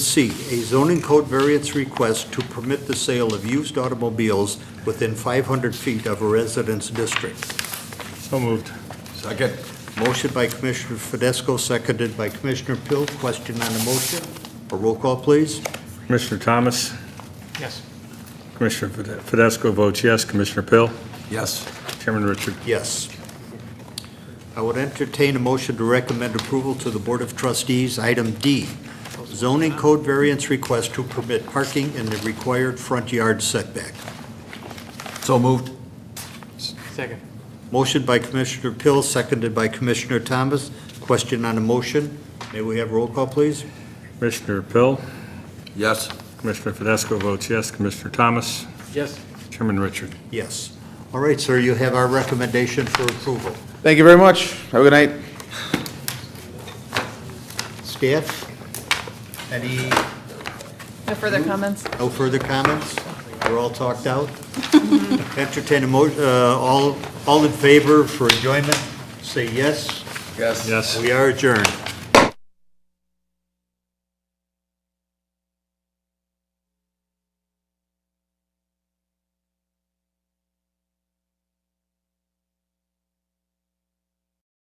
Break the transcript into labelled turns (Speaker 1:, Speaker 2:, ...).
Speaker 1: C, a zoning code variance request to permit the sale of used automobiles within 500 feet of a residence district.
Speaker 2: So moved.
Speaker 3: Second.
Speaker 1: Motion by Commissioner Fidesco, seconded by Commissioner Pill. Question on the motion? A roll call, please.
Speaker 2: Commissioner Thomas?
Speaker 4: Yes.
Speaker 2: Commissioner Fide- Fidesco votes yes. Commissioner Pill?
Speaker 3: Yes.
Speaker 2: Chairman Richard?
Speaker 1: Yes. I would entertain a motion to recommend approval to the Board of Trustees, item D, zoning code variance request to permit parking in the required front yard setback.
Speaker 3: So moved.
Speaker 4: Second.
Speaker 1: Motion by Commissioner Pill, seconded by Commissioner Thomas. Question on the motion? May we have roll call, please?
Speaker 2: Commissioner Pill?
Speaker 3: Yes.
Speaker 2: Commissioner Fidesco votes yes. Commissioner Thomas?
Speaker 4: Yes.
Speaker 2: Chairman Richard?
Speaker 1: Yes. All right, sir, you have our recommendation for approval.
Speaker 5: Thank you very much. Have a good night.
Speaker 1: Staff, any,
Speaker 6: No further comments?
Speaker 1: no further comments? We're all talked out? Entertain a mo, uh, all, all in favor for enjoyment, say yes.
Speaker 3: Yes.
Speaker 2: Yes.
Speaker 1: We are adjourned.